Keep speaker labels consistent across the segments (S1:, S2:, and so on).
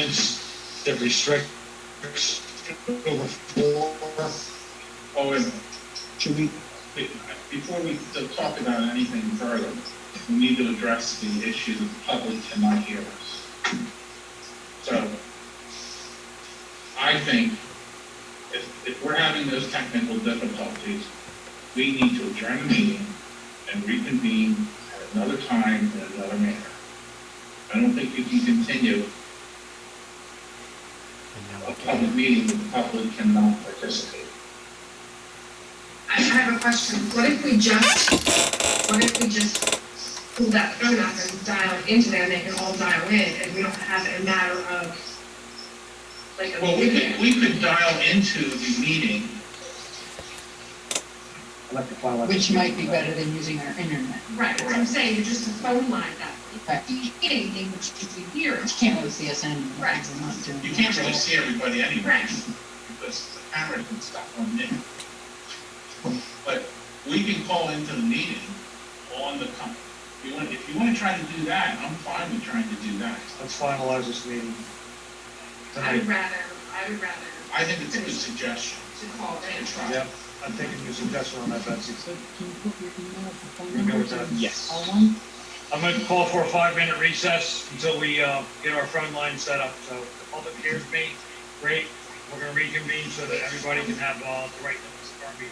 S1: ordinance that restricts over four.
S2: Oh, wait a minute.
S3: Should we,
S2: Wait, Before we t- talk about anything further, we need to address the issue that the public cannot hear us. So, I think if, if we're having those technical difficulties, we need to adjourn the meeting and reconvene at another time in another manner. I don't think you can continue a public meeting that the public cannot participate.
S4: I have a question. What if we just, what if we just pull that phone up and dial into there and they can all dial in and we don't have a matter of like a.
S2: Well, we could, we could dial into the meeting
S3: electric file,
S5: Which might be better than using our internet.
S4: Right, what I'm saying, you're just a phone line that,
S5: Right.
S4: if you hit anything, which you can hear.
S5: You can't really see us anymore because we're not doing.
S2: You can't really see everybody anyway,
S4: Right.
S2: because the cameras and stuff on there. But we can call into the meeting on the, com- if you want, if you want to try to do that, I'm fine with trying to do that.
S3: let's finalize this meeting.
S4: I
S3: Tonight,
S4: would rather, I would rather
S2: I think it's a good suggestion.
S4: to call it and try.
S3: Yep, I'm taking your suggestion on that, Betsy.
S5: Can you put your email, phone
S3: We're good with that.
S5: Yes. All one?
S3: I'm gonna call for a five-minute recess until we, uh, get our front line set up, so the public hears me, great. We're gonna reconvene so that everybody can have, uh, the right notice of our meeting.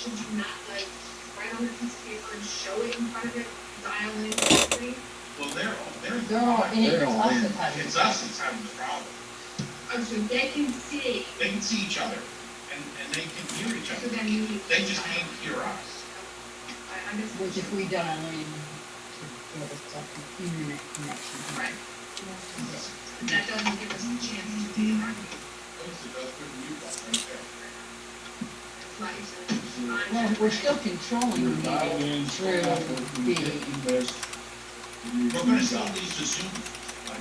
S4: Should you not like write on a piece of paper and show it in front of it, dial in, everything?
S2: Well, they're, all they're.
S5: They're all in it,
S2: they're all
S5: it's us
S2: in.
S5: that's
S2: It's us that's having
S5: having the
S2: the problem.
S4: Oh, so they can see,
S2: They can see each other, and, and they can hear each
S4: so
S2: other.
S4: then you.
S2: They just can't hear us.
S4: I, I just.
S5: Which if we dial in, to give us an internet connection.
S4: Right. That doesn't give us a chance to be
S2: Those
S4: on
S2: are- those are you guys right there.
S5: Well, we're still controlling the meeting through the,
S2: We're
S6: We're
S2: gonna still use the
S6: I
S2: Zoom.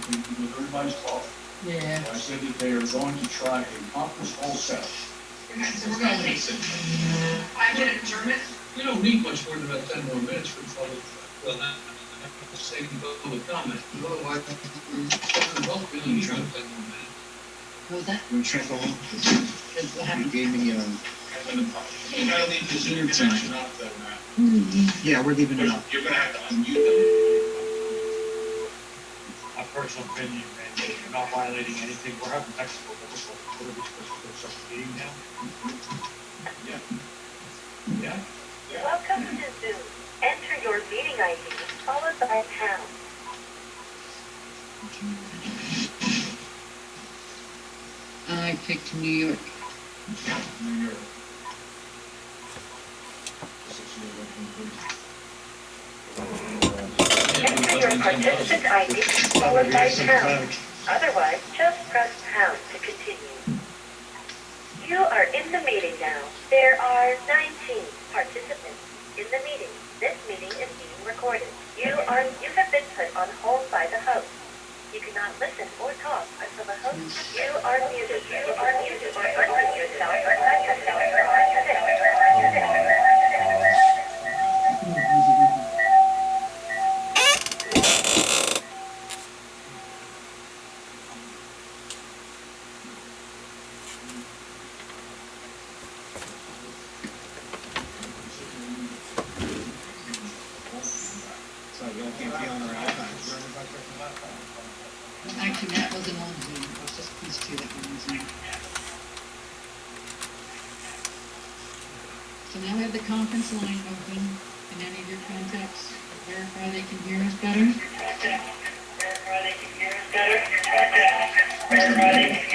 S6: think because everybody's talking,
S5: yeah,
S6: I said that they are going to try a conference call set.
S4: Okay, so we're gonna take five minute adjournment.
S7: You don't need much more than about ten more minutes for public, well, not, not saving public comment, but otherwise, we're still both really need about ten more minutes.
S5: was that?
S8: You gave me, um,
S2: You gotta leave the Zoom connection up though, Matt.
S8: yeah, we're leaving it up.
S2: You're gonna have to unmute them.
S3: My personal opinion, Randy, you're not violating anything, we're having technical difficulties, what are we supposed to do, start the meeting now?
S2: Yeah?
S9: Welcome to Zoom. Enter your meeting ID followed by pound.
S5: I picked New York.
S2: New York.
S9: Enter your participant ID followed by pound. Otherwise, just press pound to continue. You are in the meeting now. There are 19 participants in the meeting. This meeting is being recorded. You are, you have been put on hold by the host. You cannot listen or talk until the host, you are muted. You are muted or unmute yourself or type yourself or
S1: So you can't be on our iPads.
S5: Actually, that wasn't on Zoom, it was just these two that were using it. So now we have the conference line open, can any of your contacts verify they can hear us better?
S9: unmute.